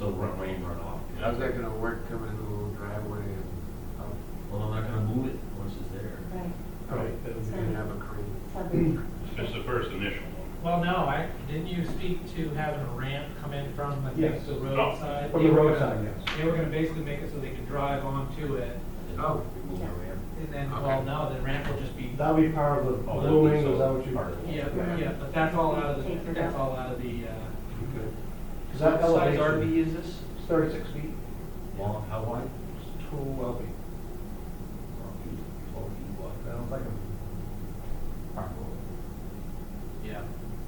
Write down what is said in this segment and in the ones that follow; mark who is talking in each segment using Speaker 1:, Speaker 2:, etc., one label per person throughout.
Speaker 1: run- rain runoff.
Speaker 2: How's that gonna work coming in the little driveway and up?
Speaker 3: Well, I'm not gonna move it once it's there.
Speaker 4: Right,
Speaker 2: Right. You can have a crane.
Speaker 4: probably.
Speaker 1: Just the first initial one.
Speaker 5: Well, no, I, didn't you speak to having a ramp come in from, I think,
Speaker 6: Yes. Oh,
Speaker 5: the roadside?
Speaker 6: From the
Speaker 5: They were gonna-
Speaker 6: roadside, yes.
Speaker 5: They were gonna basically make it so they could drive onto it,
Speaker 2: Oh, we move the ramp.
Speaker 5: and then, well, no, the ramp will just be,
Speaker 6: That'll be part of the
Speaker 1: Oh, that'd be
Speaker 6: blooming,
Speaker 1: so
Speaker 6: is that what you?
Speaker 1: part of it.
Speaker 5: yeah,
Speaker 6: Yeah.
Speaker 5: yeah, but that's all out of
Speaker 4: Take
Speaker 5: the,
Speaker 4: it
Speaker 5: that's
Speaker 4: out.
Speaker 5: all out of the, uh.
Speaker 6: Is that
Speaker 5: Size
Speaker 6: elevation?
Speaker 5: RV is this?
Speaker 6: It's thirty-six feet,
Speaker 3: Long, how wide?
Speaker 6: it's twelve feet.
Speaker 3: Twelve feet, twelve feet
Speaker 6: I
Speaker 3: wide.
Speaker 6: don't think I'm.
Speaker 5: Yeah.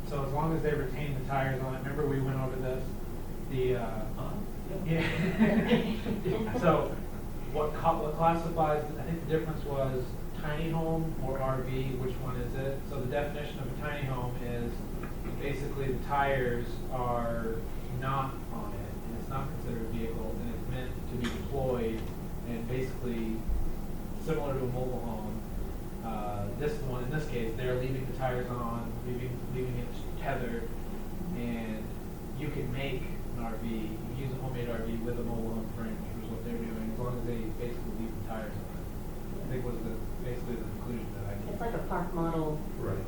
Speaker 5: So as long as they retain the tires on it, remember we went over this, the, uh,
Speaker 3: Huh?
Speaker 5: Yeah. So what co- what classifies, I think the difference was tiny home or RV, which one is it? So the definition of a tiny home is basically the tires are not on it and it's not considered a vehicle and it's meant to be deployed and basically similar to a mobile home. Uh, this one, in this case, they're leaving the tires on, leaving, leaving it tethered and you can make an RV, you can use a homemade RV with a mobile home frame, which is what they're doing, as long as they basically leave the tires on it. I think was the, basically the conclusion that I
Speaker 4: It's
Speaker 5: came.
Speaker 4: like a park model.
Speaker 6: Right.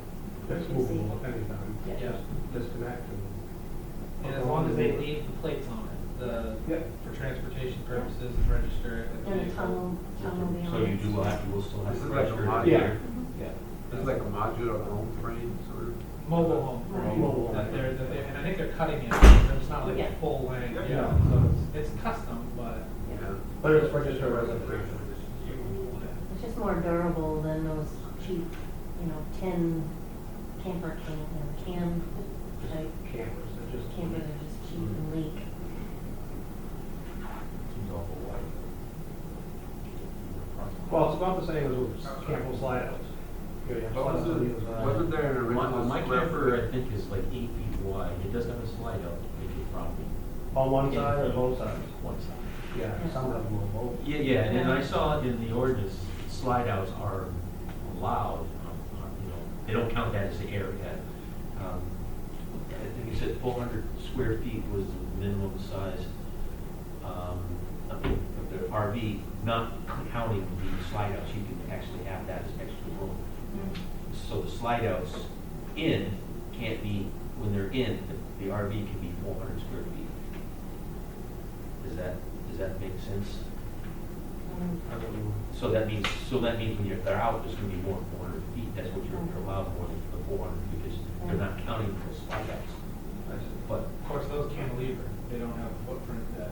Speaker 6: That's movable at any time.
Speaker 4: Yeah.
Speaker 5: Yeah,
Speaker 6: Disconnect and.
Speaker 5: and as long as they leave the plates on it, the,
Speaker 6: Yeah.
Speaker 5: for transportation purposes and register it. as
Speaker 4: And a
Speaker 5: vehicle.
Speaker 4: tunnel, tunnel Mm-hmm. beyond.
Speaker 3: So you do have, you will still have.
Speaker 2: This
Speaker 3: to
Speaker 2: is like a
Speaker 3: register it.
Speaker 2: mod.
Speaker 6: Yeah.
Speaker 3: Yeah.
Speaker 2: It's like a modular home frame, sort of.
Speaker 5: Mobile home frame.
Speaker 6: Mobile home.
Speaker 5: That they're, that they're, and I think they're cutting it, so it's not like
Speaker 4: Yeah.
Speaker 5: a full length,
Speaker 2: Yeah.
Speaker 5: yeah, so it's, it's custom, but.
Speaker 2: Yeah.
Speaker 6: But it's registered as a frame.
Speaker 4: It's just more durable than those cheap, you know, tin camper can, you know, can, like,
Speaker 6: Cameras, it just.
Speaker 4: campers are just cheap and leak.
Speaker 3: Seems awful wide.
Speaker 6: Well, it's about the same as with Campbell slide outs. You know, you have
Speaker 2: But
Speaker 6: slide outs on
Speaker 2: wasn't,
Speaker 6: either side.
Speaker 2: wasn't there an
Speaker 3: My,
Speaker 2: original
Speaker 3: my
Speaker 2: square
Speaker 3: camper,
Speaker 2: foot?
Speaker 3: I think, is like eight feet wide, it doesn't have a slide out, maybe probably.
Speaker 6: On one side or both sides?
Speaker 3: One side.
Speaker 6: Yeah, some of them will both.
Speaker 3: Yeah, yeah, and I saw in the ordinance, slide outs are allowed, um, are, you know, they don't count that as the area. Um, I think you said four hundred square feet was the minimum size, um, of the, of the RV, not counting the slide outs, you can actually have that as extra room. So the slide outs in can't be, when they're in, the- the RV can be four hundred square feet. Does that, does that make sense?
Speaker 4: Um,
Speaker 3: So that means, so that means when you're, they're out, there's gonna be more than four hundred feet, that's what you're you're allowed more than the four hundred, because they're not counting for slide outs. But,
Speaker 5: Of course, those cantilever, they don't have a footprint that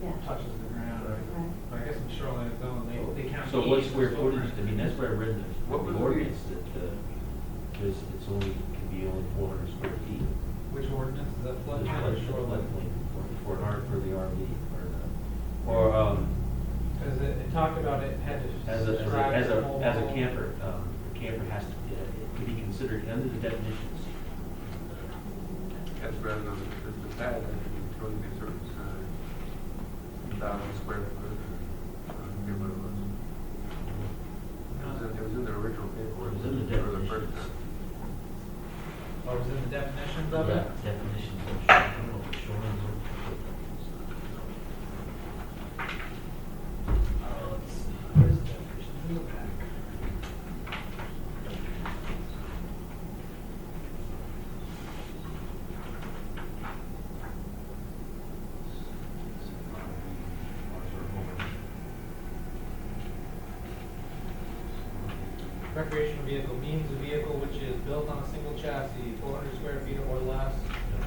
Speaker 4: Yeah,
Speaker 5: touches the ground,
Speaker 4: right.
Speaker 5: But I guess in shoreline zone, they, they count.
Speaker 3: so what
Speaker 5: each
Speaker 3: square
Speaker 5: as
Speaker 3: footage,
Speaker 5: footprint.
Speaker 3: I mean, that's where I read in the-
Speaker 2: What was
Speaker 3: the
Speaker 2: the-
Speaker 3: ordinance, that, uh, there's, it's only, can be only four hundred square feet.
Speaker 5: Which ordinance, is
Speaker 3: There's
Speaker 5: that floodplain or
Speaker 3: flood-
Speaker 5: shoreline?
Speaker 3: floodplain For, for an R, for the RV, or, uh, or, um,
Speaker 5: Because it, it talked about it had to
Speaker 3: As a, as a,
Speaker 5: describe.
Speaker 3: as
Speaker 5: the
Speaker 3: a,
Speaker 5: mobile
Speaker 3: as a
Speaker 5: home.
Speaker 3: camper, um, a camper has to, uh, to be considered under the definitions.
Speaker 2: That's rather than the, the pad, I think, totally a certain size. uh, Thousand square foot. I don't remember what it was. It was in- It was in the original paperwork.
Speaker 3: It was in the
Speaker 2: for first
Speaker 3: definitions.
Speaker 2: time.
Speaker 5: Or was in the definitions of it?
Speaker 3: Definitions of shoreline, shoreline zone.
Speaker 5: Oh, let's see, where's the definition? In the back. Recreational vehicle means a vehicle which is built on a single chassis, four hundred square feet or less,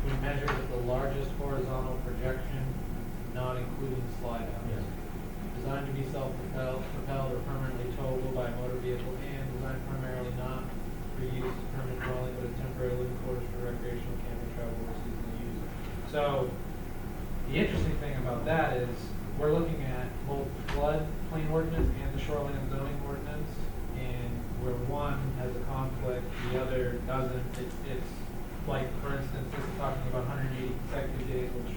Speaker 5: when measured with the largest horizontal projection, not including slide outs. Designed to be self-propelled, propelled or permanently towable by a motor vehicle and designed primarily not for use as permanent dwelling, but as temporary living quarters for recreational camping, travel, or seasonal use. So, the interesting thing about that is, we're looking at both floodplain ordinance and the shoreline zoning ordinance, and where one has a conflict, the other doesn't, it's, it's, like, for instance, this is talking about hundred and eighty consecutive days, which